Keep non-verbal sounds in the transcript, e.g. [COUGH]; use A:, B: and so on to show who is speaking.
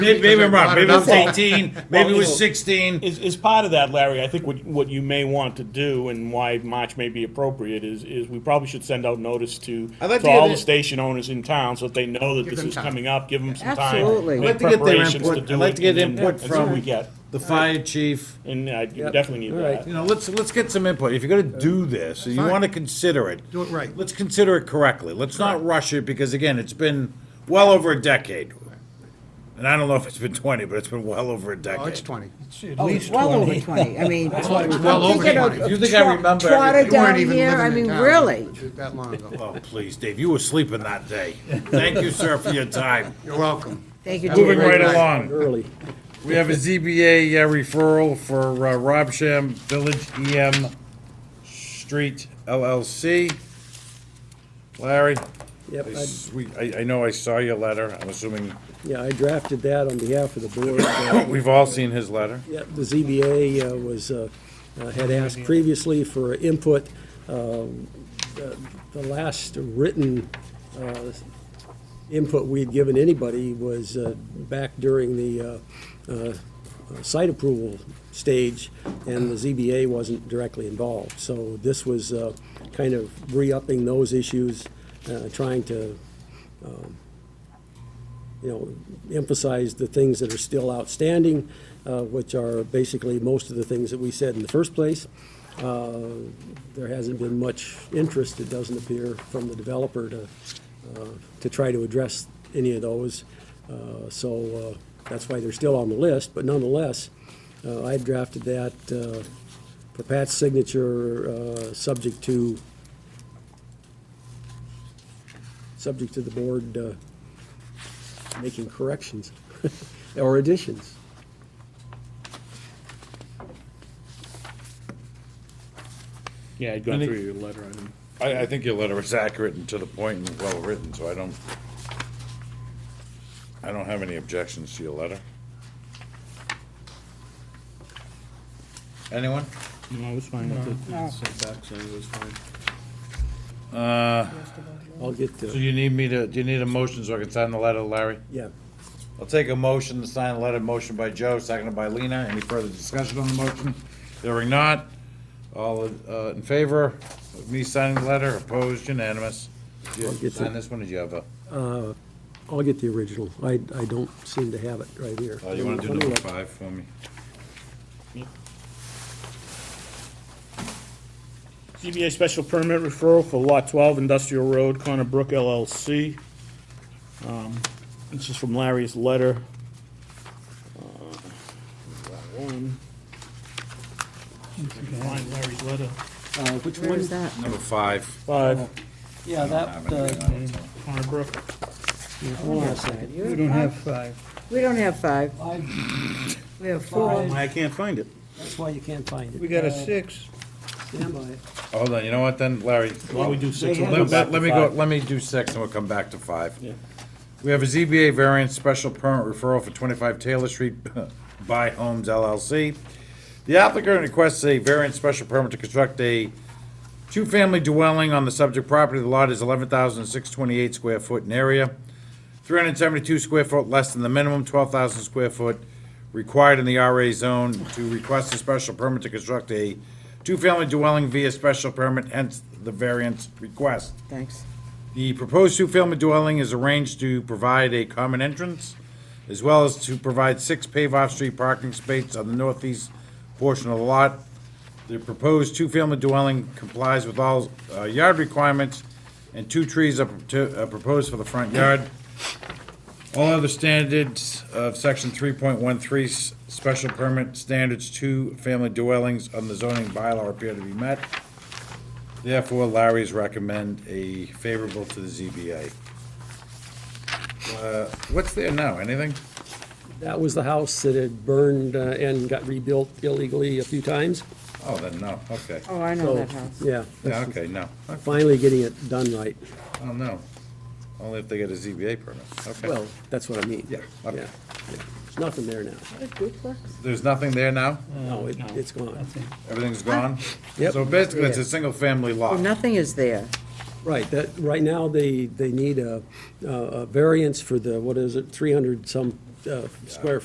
A: Maybe, maybe I'm wrong,
B: Because I
A: maybe it was
B: brought it up.
A: eighteen,
B: [LAUGHS]
A: maybe it was
C: Well,
A: sixteen,
C: Is, is part of that, Larry, I think what, what you may want to do and why March may be appropriate is, is we probably should send out notice to,
A: I'd like
C: to
A: to get
C: all the
A: it-
C: station owners in town so that they know that
B: Give
C: this
B: them
C: is
B: time.
C: coming up, give them some
D: Absolutely.
C: time.
D: I'd
C: make
A: like to get their
C: preparations
A: input.
C: do
A: I'd like
C: it,
A: to get
C: and then
A: input
C: That's what we
A: from-
C: get,
A: the fire chief.
C: and I you definitely need
A: All right, you
C: that.
A: know, let's, let's get some input. If you're gonna do this, and you
B: Fine.
A: wanna consider it.
B: Do it right.
A: Let's consider it correctly. Let's not rush it, because again, it's been well over a decade. And I don't know if it's been twenty, but it's been well over a
B: Oh, it's
A: decade.
B: 20.
D: Oh, it's well over twenty,
B: [LAUGHS]
D: I mean.
B: well
D: I'm
B: over
D: thinking of
B: 20. If
A: you think I
D: Tro-
A: remember
D: Trotter
A: everything-
B: You
D: down
B: weren't even
D: here, I
B: living in
D: mean,
B: town.
D: really,
B: That long ago.
A: Oh, please, Dave, you were sleeping that day. Thank you, sir, for your time.
B: You're welcome.
D: thank you,
A: Moving right
D: David.
A: along. Early. We have a ZBA uh, referral for uh, Robsham Village EM Street LLC. Larry?
E: Yep,
A: I
E: I-
A: s- we- I, I know I saw your letter. I'm assuming, [COUGHS]
E: yeah, I drafted that on behalf of the board. Uh,
A: we've all seen his letter.
E: yeah, The ZBA uh, was, uh, uh, had asked previously for input. Um, The the last written uh, input we'd given anybody was uh, back during the uh, uh, site approval stage, and the ZBA wasn't directly involved. So this was uh, kind of re-upping those issues, uh, trying to you know, emphasize the things that are still outstanding, uh, which are basically most of the things that we said in the first place. Uh, There hasn't been much interest, it doesn't appear, from the developer to, uh, to try to address any of those. Uh, So uh, that's why they're still on the list, but nonetheless, uh, I drafted that uh, for Pat's signature, uh, subject to, subject to the board uh, making corrections [LAUGHS] or additions.
C: Yeah, I'd gone
A: Any-
C: through your letter, I didn't.
A: I, I think your letter was accurate and to the point and well-written, so I don't, I don't have any objections to your letter. Anyone?
C: No, it was fine with it.
E: I'll get
A: So
E: to,
A: you need me to, do you need a motion so I can sign the letter, Larry?
E: yeah.
A: I'll take a motion to sign a letter, motion by Joe, seconded by Lena. Any further discussion on the motion? Hearing not. All uh, in favor of me signing the letter, opposed, unanimous. Did
E: I'll
A: you
E: get
A: sign
E: the-
A: this one, or did you have a?
E: I'll get the original. I, I don't seem to have it right here.
A: Oh, you want to do number five for me?
C: ZBA special permit referral for Lot 12 Industrial Road, Connor Brook LLC. Um, This is from Larry's letter. Uh, that one. If you can Find Larry's letter.
E: Which
D: Where is that?
A: Number five.
C: Five,
F: Yeah,
A: I
F: that,
A: don't have
F: uh,
A: anything on it, so.
C: Connor Brook.
F: hold on a second.
D: You're
F: We don't
D: fine.
F: have five.
D: We don't have five,
F: Five,
D: we have four.
C: I can't find it.
E: That's why you can't find it. Uh,
F: we got a six.
E: Stand by it.
A: Hold on, you know what then, Larry?
C: Why don't we do six?
A: Let-
C: and we'll go
A: Let
C: back to
A: let me go,
C: five?
A: let me do six and we'll come back to five.
C: Yeah.
A: We have a ZBA variance special permit referral for 25 Taylor Street [LAUGHS] by Homes LLC. The applicant requests a variance special permit to construct a two-family dwelling on the subject property. The lot is 11,628 square foot in area, 372 square foot less than the minimum, 12,000 square foot required in the RA zone to request a special permit to construct a two-family dwelling via special permit, hence the variance request.
D: Thanks.
A: The proposed two-family dwelling is arranged to provide a common entrance, as well as to provide six paved off-street parking spaces on the northeast portion of the lot. The proposed two-family dwelling complies with all uh, yard requirements, and two trees are proto- are proposed for the front yard. All other standards of section 3.13, s- special permit standards to family dwellings on the zoning bylaw appear to be met. Therefore, Larry's recommend a favorable to the ZBA. Uh, What's there now, anything?
E: That was the house that had burned uh, and got rebuilt illegally a few times.
A: Oh, then no, okay.
D: Oh, I know
E: So,
D: that house.
E: Yeah.
A: Yeah, okay, no,
E: Finally getting it done right.
A: oh, no. Only if they get a ZBA permit, okay.
E: Well, that's what I mean.
A: Yeah, okay.
E: Yeah. yeah. There's nothing there now.
A: There's nothing there now?
D: Uh,
E: No, it- it's gone.
A: Everything's gone?
E: Yep.
A: So basically, it's a
E: Yeah.
A: single-family
D: Oh,
A: lot.
D: nothing is there.
E: Right, that, right now, they, they need a, a a variance for the, what is it, 300 some uh, square